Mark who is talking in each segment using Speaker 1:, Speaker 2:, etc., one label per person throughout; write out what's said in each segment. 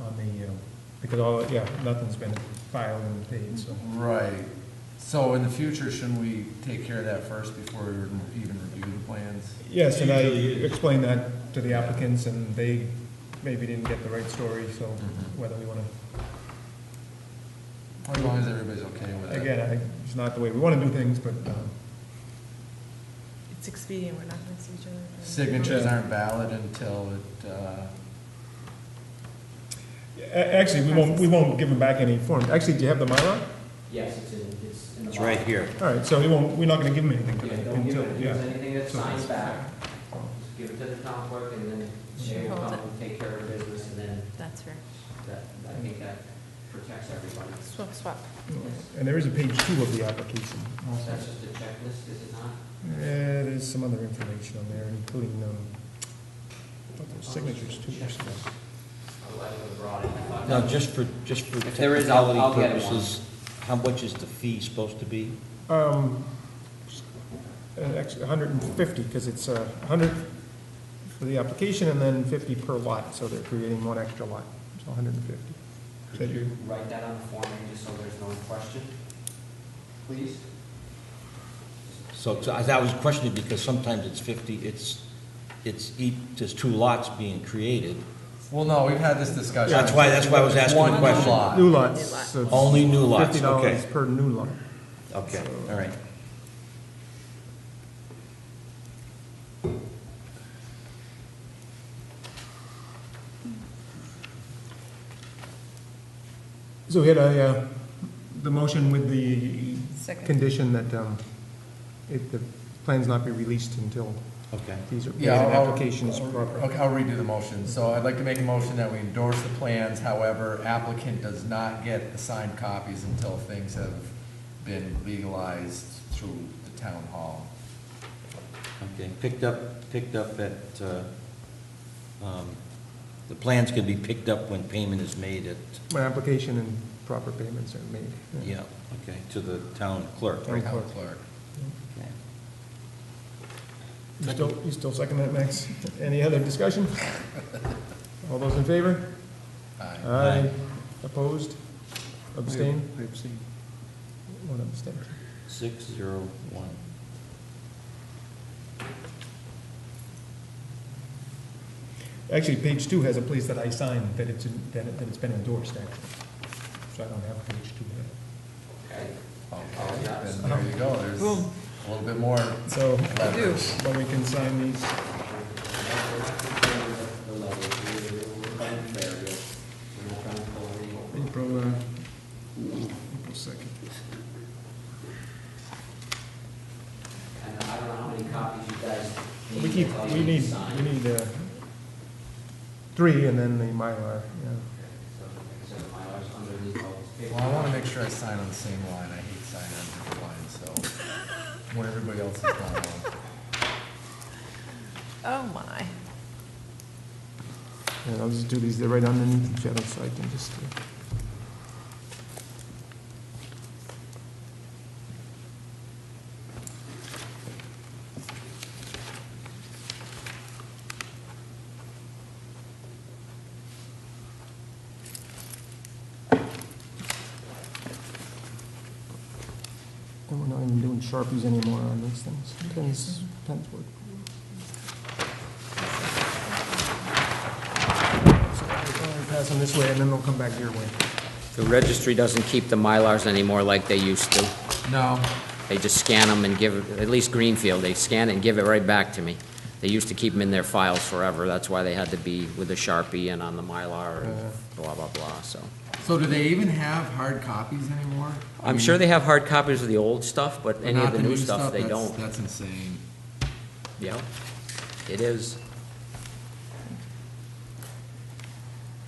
Speaker 1: on the, uh, because all, yeah, nothing's been filed and paid, so.
Speaker 2: Mm-hmm.
Speaker 3: Right, so in the future, shouldn't we take care of that first before we even review the plans?
Speaker 1: Yes, and I explained that to the applicants, and they maybe didn't get the right story, so
Speaker 2: Mm-hmm.
Speaker 1: whether we want to,
Speaker 3: As long as everybody's okay with it.
Speaker 1: again, I think it's not the way we want to do things, but, um,
Speaker 4: It's expedient, we're not gonna see each other. for-
Speaker 3: Signatures aren't valid until it, uh,
Speaker 1: a- actually, we won't, we won't give them back any forms. Actually, do you have the Mylar?
Speaker 2: Yes, it's in, it's in the.
Speaker 5: It's right
Speaker 2: box.
Speaker 5: here.
Speaker 1: All right, so we won't, we're not going to give them anything
Speaker 2: Yeah,
Speaker 1: today
Speaker 2: don't give
Speaker 1: until,
Speaker 2: it, if
Speaker 1: yeah.
Speaker 2: there's anything that's
Speaker 1: So-
Speaker 2: signed back, just give it to the town clerk and then she will
Speaker 4: Hold
Speaker 2: come
Speaker 4: it.
Speaker 2: and take care of her business and then
Speaker 4: That's fair.
Speaker 2: that, I think that protects everybody.
Speaker 4: Swap, swap.
Speaker 1: And there is a page two of the application.
Speaker 2: So That's just a checklist, is it not?
Speaker 1: Yeah, there's some other information on there, including, um, I thought there was signatures too. or something.
Speaker 2: I like the broad.
Speaker 5: Now, just for, just for
Speaker 2: If there is, I'll- I'll
Speaker 5: technicality
Speaker 2: get one.
Speaker 5: purposes, how much is the fee supposed to be?
Speaker 1: Um, and actually, hundred and fifty, because it's uh, a hundred for the application and then fifty per lot, so they're creating one extra lot, so hundred and fifty.
Speaker 2: Could you write that on the form and just so there's no question? Please?
Speaker 5: So, so I I was questioning because sometimes it's 50, it's, it's, each- there's two lots being created.
Speaker 3: well, no, we've had this discussion.
Speaker 5: That's why, that's why I was asking
Speaker 3: One
Speaker 5: the question.
Speaker 3: lot.
Speaker 1: New lots,
Speaker 4: New lot.
Speaker 1: so it's
Speaker 5: Only new lots,
Speaker 1: fifty dollars
Speaker 5: okay.
Speaker 1: per new lot.
Speaker 5: Okay,
Speaker 1: Mm.
Speaker 5: all right.
Speaker 1: So we had a, uh, the motion with the
Speaker 4: Second.
Speaker 1: condition that, um, it, the plans not be released until
Speaker 5: Okay.
Speaker 1: these are,
Speaker 3: Yeah,
Speaker 1: the
Speaker 3: I'll-
Speaker 1: application is
Speaker 3: I'll-
Speaker 1: proper.
Speaker 3: Okay, I'll redo the motion. So I'd like to make a motion that we endorse the plans, however, applicant does not get the signed copies until things have been legalized through the town hall.
Speaker 5: Okay, picked up, picked up at, uh, um, the plans can be picked up when payment is made at,
Speaker 1: When application and proper payments are made.
Speaker 5: yeah, okay, to the town clerk.
Speaker 1: Town
Speaker 3: Town
Speaker 1: clerk.
Speaker 3: clerk.
Speaker 5: Okay.
Speaker 1: You still, you still second that, Max? Any other discussion? All those in favor?
Speaker 3: Aye.
Speaker 1: Aye. Opposed? Abstain? Abstain. One abstain.
Speaker 5: Six, zero, one.
Speaker 1: Actually, page two has a place that I signed that it's, that it- that it's been endorsed, actually. So I don't have page two there.
Speaker 2: Okay.
Speaker 3: Okay, then there you go, there's a
Speaker 4: Boom.
Speaker 3: little bit more
Speaker 1: So, uh,
Speaker 3: leverage.
Speaker 1: but we can sign these.
Speaker 2: The level, we're trying to bury it, we're trying to pull it over.
Speaker 1: April, uh, April second.
Speaker 2: And I don't know how many copies you guys need.
Speaker 1: We keep,
Speaker 2: that's all you
Speaker 1: we
Speaker 2: to
Speaker 1: need,
Speaker 2: sign.
Speaker 1: we need, uh, three and then the Mylar, yeah.
Speaker 2: Okay, So, like I said, my wife's underneath all this paper.
Speaker 3: Well, I want to make sure I sign on the same line. I hate signing on different lines, so when everybody else is done,
Speaker 4: Oh, my.
Speaker 1: And I'll just do these, they're right underneath each other, so I can just. uh, And we're not even doing Sharpies anymore on these things. Pens, pens work. So I'll Pass them this way, and then they'll come back your way.
Speaker 6: The registry doesn't keep the Mylars anymore like they used to.
Speaker 3: I'll- no,
Speaker 6: They just scan them and give, at least Greenfield, they scan it and give it right back to me. They used to keep them in their files forever, that's why they had to be with a Sharpie and on the Mylar and blah, blah, blah, so.
Speaker 3: So do they even have hard copies anymore?
Speaker 6: I'm sure they have hard copies of the old stuff, but any of
Speaker 3: Not
Speaker 6: the new stuff, they
Speaker 3: that's-
Speaker 6: don't.
Speaker 3: That's insane.
Speaker 6: Yeah, it is.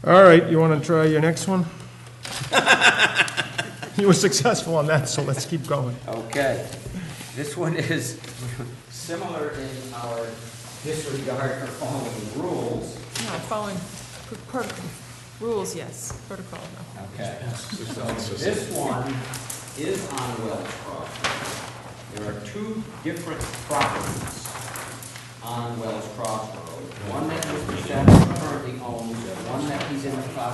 Speaker 1: All right, you want to try your next one? You were successful on that, so let's keep going.
Speaker 2: Okay, this one is similar in our disregard for following rules.
Speaker 4: No, following pr- protocol, rules, yes, protocol, no.
Speaker 2: Okay, so this one is on Wells Cross. Road. There are two different properties on Wells Cross Road. One that Mr. Shepherd currently owns, and one that he's in the process